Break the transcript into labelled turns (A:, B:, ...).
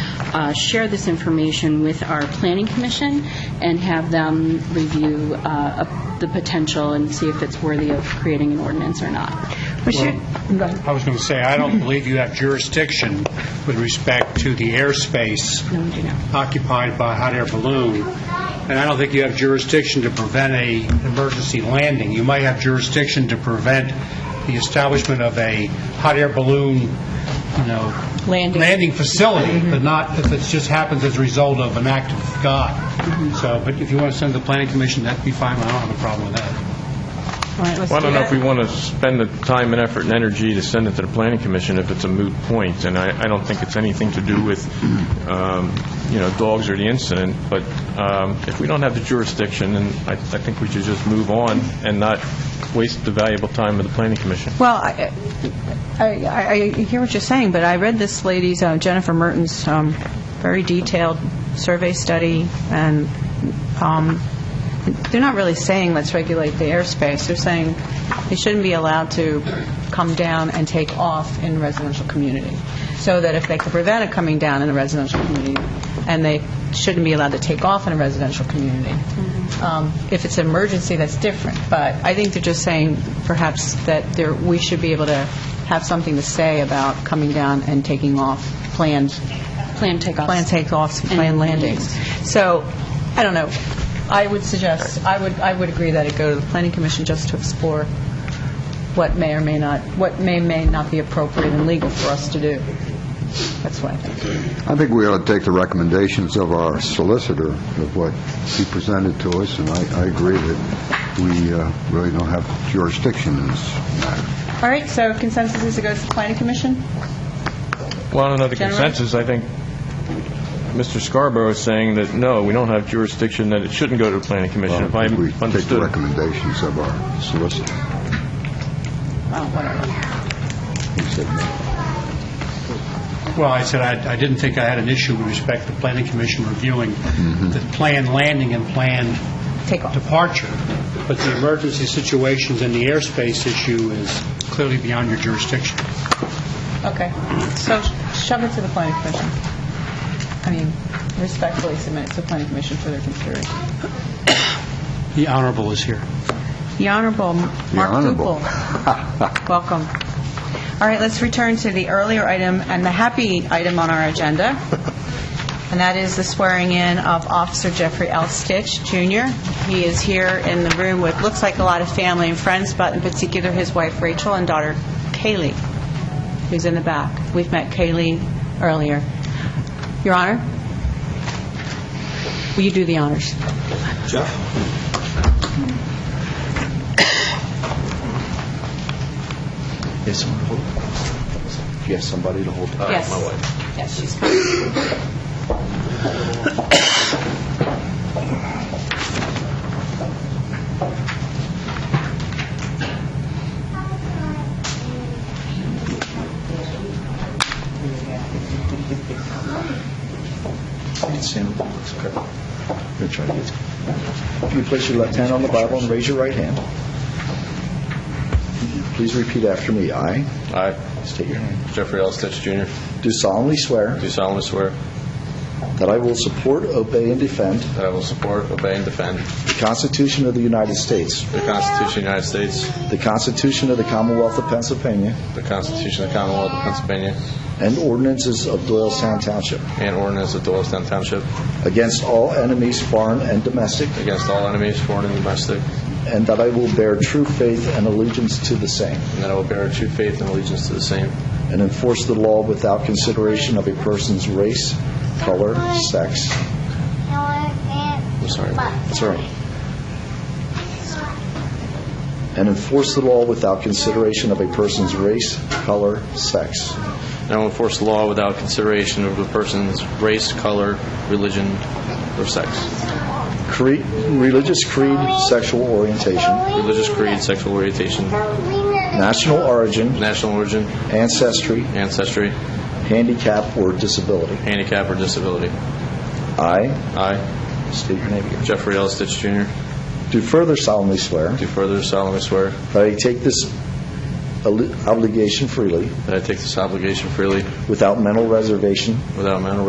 A: uh, share this information with our planning commission and have them review uh, a- the potential and see if it's worthy of creating an ordinance or not.
B: I was going to say, I don't believe you have jurisdiction with respect to the airspace occupied by a hot air balloon, and I don't think you have jurisdiction to prevent a emergency landing. You might have jurisdiction to prevent the establishment of a hot air balloon, you know...
A: Landing.
B: facility, but not if it just happens as a result of an act of God. So, but if you want to send to the planning commission, that'd be fine, I don't have a problem with that.
C: Well, I don't know if we want to spend the time and effort and energy to send it to the planning commission if it's a moot point, and I, I don't think it's anything to do with, um, you know, dogs or the incident, but um, if we don't have the jurisdiction, then I, I think we should just move on and not waste the valuable time of the planning commission.
D: Well, I, I- I I hear what you're saying, but I read this lady's, uh, Jennifer Mertens, um, very detailed survey study, and um, they're not really saying, let's regulate the airspace. They're saying they shouldn't be allowed to come down and take off in residential community, so that if they could prevent it coming down in a residential community, and they shouldn't be allowed to take off in a residential community. Um, If it's an emergency, that's different, but I think they're just saying perhaps that there, we should be able to have something to say about coming down and taking off planned
A: Plan takeoffs.
D: planned takeoffs, and planned landings. So, I don't know, I would suggest, I would, I would agree that it go to the planning commission just to explore what may or may not, what may, may not be appropriate and legal for us to do. That's what I think.
E: I think we ought to take the recommendations of our solicitor, of what he presented to us, and I I agree that we uh, really don't have jurisdiction in this matter.
D: All right, so consensus is it goes to the planning commission?
C: Well, I don't know the
D: General?
C: consensus, I think Mr. Scarborough is saying that, no, we don't have jurisdiction, that it shouldn't go to the planning commission, if I
E: We take the
C: understood.
E: recommendations of our solicitor.
D: Oh, whatever.
E: He said no.
B: Well, I said I I didn't think I had an issue with respect to planning commission reviewing the planned landing and planned
D: Take off.
B: departure, but the emergency situations and the airspace issue is clearly beyond your jurisdiction.
D: Okay, so shove it to the planning commission. I mean, respectfully submit it to the planning commission for their consideration.
B: The Honorable is here.
D: The Honorable Mark
E: Honorable.
D: Duple. Welcome. All right, let's return to the earlier item and the happy item on our agenda, and that is the swearing-in of Officer Jeffrey L. Stitch, Jr. He is here in the room with, looks like a lot of family and friends, but in particular, his wife Rachel and daughter Kaylee, who's in the back. We've met Kaylee earlier. Your Honor, will you do the honors?
F: Yes, someone to hold. Do you have somebody to hold? Uh,
D: Yes.
F: My wife.
D: Yes, she's
F: It's Sam. It's okay. I'm gonna try to get- If you place your left hand on the Bible and raise your right hand. Please repeat after me. I
C: I,
F: state your name.
C: Jeffrey L. Stitch, Jr.,
F: Do solemnly swear
C: do solemnly swear
F: that I will support, obey, and defend
C: that I will support, obey, and defend
F: the Constitution of the United States,
C: the Constitution of the United States,
F: the Constitution of the Commonwealth of Pennsylvania,
C: the Constitution of the Commonwealth of Pennsylvania,
F: and ordinances of Doylestown Township,
C: and ordinance of Doylestown Township,
F: against all enemies, foreign and domestic,
C: against all enemies, foreign and domestic,
F: and that I will bear true faith and allegiance to the same.
C: and that I will bear true faith and allegiance to the same,
F: and enforce the law without consideration of a person's race, color, sex.
G: I'm
C: sorry.
F: That's all right. And enforce the law without consideration of a person's race, color, sex.
C: and I will enforce the law without consideration of a person's race, color, religion, or sex,
F: Creed, religious creed, sexual orientation,
C: religious creed, sexual orientation,
F: national origin,
C: national origin,
F: ancestry,
C: ancestry,
F: handicap, or disability.
C: handicap, or disability.
F: I,
C: I,
F: state your name again,
C: Jeffrey L. Stitch, Jr.,
F: do further solemnly swear
C: do further solemnly swear
F: that I take this obli- obligation freely,
C: that I take this obligation freely
F: without mental reservation
C: without mental